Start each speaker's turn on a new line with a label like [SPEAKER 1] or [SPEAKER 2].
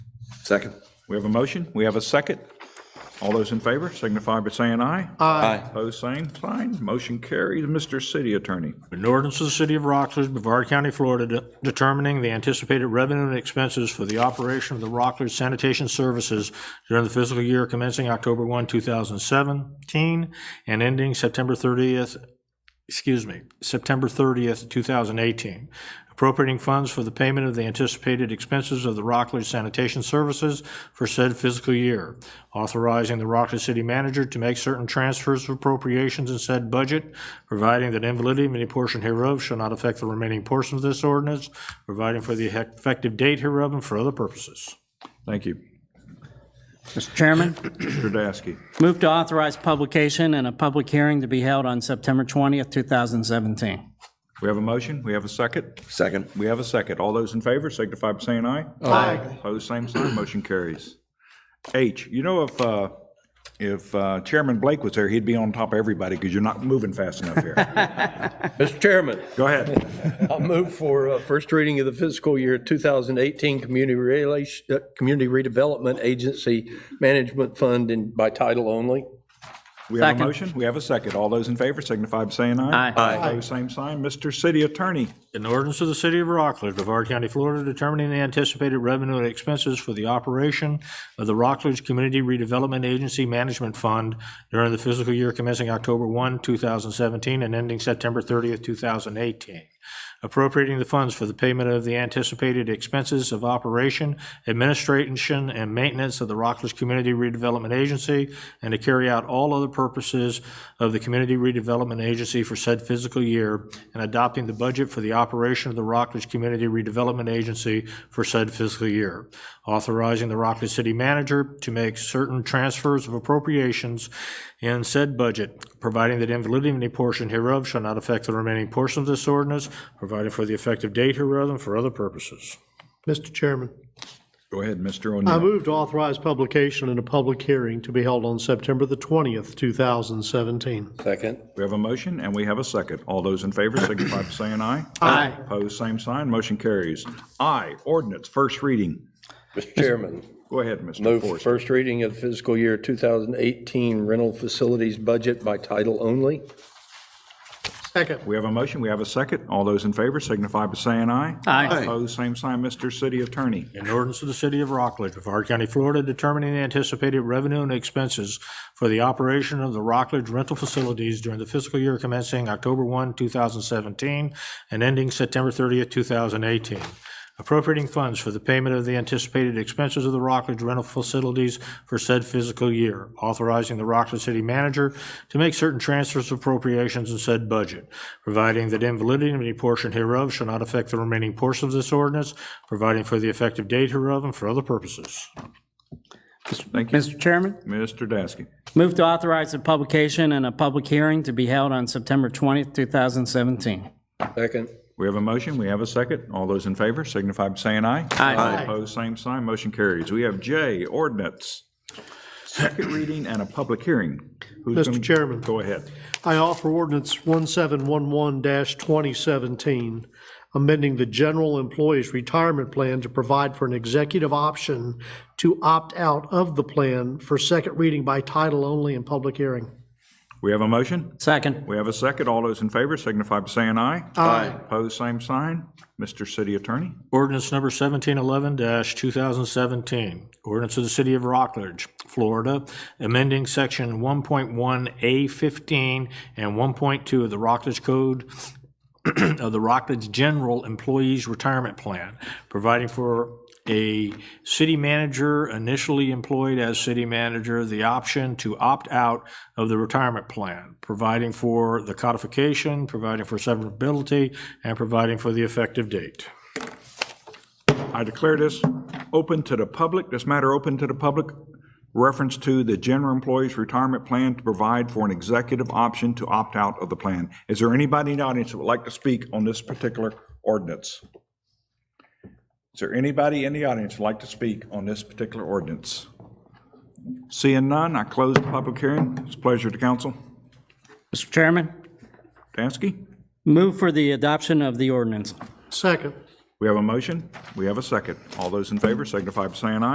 [SPEAKER 1] Second.
[SPEAKER 2] We have a motion, we have a second. All those in favor signify by saying aye.
[SPEAKER 1] Aye.
[SPEAKER 2] Opposed, same sign. Motion carries. Mr. City Attorney,
[SPEAKER 3] An ordinance of the City of Rockledge, Brevard County, Florida, de- determining the anticipated revenue and expenses for the operation of the Rockledge Sanitation Services during the fiscal year commencing October 1, 2017, and ending September 30th, excuse me, September 30th, 2018, appropriating funds for the payment of the anticipated expenses of the Rockledge Sanitation Services for said fiscal year, authorizing the Rockledge City Manager to make certain transfers of appropriations in said budget, providing that invalidity of any portion hereof shall not affect the remaining portion of this ordinance, providing for the effective date hereof and for other purposes.
[SPEAKER 2] thank you.
[SPEAKER 4] Mr. Chairman,
[SPEAKER 2] Mr. Dasky,
[SPEAKER 4] move to authorize publication and a public hearing to be held on September 20th, 2017.
[SPEAKER 2] we have a motion, we have a second.
[SPEAKER 1] Second.
[SPEAKER 2] We have a second. All those in favor signify by saying aye. Aye. Opposed, same sign. Motion carries. H, you know, if, uh, if uh, Chairman Blake was there, he'd be on top of everybody because you're not moving fast enough here.
[SPEAKER 5] Mr. Chairman,
[SPEAKER 2] Go ahead.
[SPEAKER 5] I'll move for uh, first reading of the fiscal year 2018 Community Relation, uh, Community Redevelopment Agency Management Fund and by title only.
[SPEAKER 2] We have a
[SPEAKER 4] Second.
[SPEAKER 2] motion, we have a second. All those in favor signify by saying aye.
[SPEAKER 4] Aye. Aye.
[SPEAKER 2] Opposed, same sign. Mr. City Attorney,
[SPEAKER 3] An ordinance of the City of Rockledge, Brevard County, Florida, determining the anticipated revenue and expenses for the operation of the Rockledge Community Redevelopment Agency Management Fund during the fiscal year commencing October 1, 2017, and ending September 30th, 2018, appropriating the funds for the payment of the anticipated expenses of operation, administration, and maintenance of the Rockledge Community Redevelopment Agency, and to carry out all other purposes of the Community Redevelopment Agency for said fiscal year, and adopting the budget for the operation of the Rockledge Community Redevelopment Agency for said fiscal year, authorizing the Rockledge City Manager to make certain transfers of appropriations in said budget, providing that invalidity of any portion hereof shall not affect the remaining portion of this ordinance, provided for the effective date hereof and for other purposes.
[SPEAKER 6] Mr. Chairman,
[SPEAKER 2] go ahead, Mr.
[SPEAKER 6] I
[SPEAKER 2] O'Neill.
[SPEAKER 6] move to authorize publication in a public hearing to be held on September the 20th, 2017.
[SPEAKER 5] Second.
[SPEAKER 2] We have a motion and we have a second. All those in favor signify by saying aye. Aye. Opposed, same sign. Motion carries. I, ordinance, first reading.
[SPEAKER 5] Mr. Chairman,
[SPEAKER 2] Go ahead, Mr.
[SPEAKER 5] move for
[SPEAKER 2] Forrester.
[SPEAKER 5] first reading of fiscal year 2018 rental facilities budget by title only.
[SPEAKER 6] Second.
[SPEAKER 2] We have a motion, we have a second. All those in favor signify by saying aye.
[SPEAKER 4] Aye.
[SPEAKER 2] Opposed, same sign. Mr. City Attorney,
[SPEAKER 3] An ordinance of the City of Rockledge, Brevard County, Florida, determining the anticipated revenue and expenses for the operation of the Rockledge rental facilities during the fiscal year commencing October 1, 2017, and ending September 30, 2018, appropriating funds for the payment of the anticipated expenses of the Rockledge rental facilities for said fiscal year, authorizing the Rockledge City Manager to make certain transfers of appropriations in said budget, providing that invalidity of any portion hereof shall not affect the remaining portion of this ordinance, providing for the effective date hereof and for other purposes.
[SPEAKER 2] thank you.
[SPEAKER 4] Mr. Chairman,
[SPEAKER 2] Mr. Dasky,
[SPEAKER 4] move to authorize the publication and a public hearing to be held on September 20th, 2017.
[SPEAKER 5] Second.
[SPEAKER 2] we have a motion, we have a second. All those in favor signify by saying aye. Aye. Opposed, same sign. Motion carries. We have J, ordinance, second reading and a public hearing. Who's
[SPEAKER 6] Mr.
[SPEAKER 2] gonna-
[SPEAKER 6] Chairman.
[SPEAKER 2] Go ahead.
[SPEAKER 6] I offer ordinance 1711-2017, amending the General Employees Retirement Plan to provide for an executive option to opt out of the plan for second reading by title only and public hearing.
[SPEAKER 2] We have a motion,
[SPEAKER 4] Second.
[SPEAKER 2] we have a second. All those in favor signify by saying aye. Aye. Opposed, same sign. Mr. City Attorney,
[SPEAKER 3] Ordinance number 1711-2017, ordinance of the City of Rockledge, Florida, amending Section 1.1A15 and 1.2 of the Rockledge Code of the Rockledge General Employees Retirement Plan, providing for a city manager initially employed as city manager the option to opt out of the retirement plan, providing for the codification, providing for severability, and providing for the effective date.
[SPEAKER 2] I declare this open to the public, this matter open to the public, reference to the general employees retirement plan to provide for an executive option to opt out of the plan. Is there anybody in the audience that would like to speak on this particular ordinance? Is there anybody in the audience who'd like to speak on this particular ordinance? Seeing none, I close the public hearing. It's a pleasure to council.
[SPEAKER 4] Mr. Chairman,
[SPEAKER 2] Dansky?
[SPEAKER 4] move for the adoption of the ordinance.
[SPEAKER 6] Second.
[SPEAKER 2] We have a motion, we have a second. All those in favor signify by saying aye.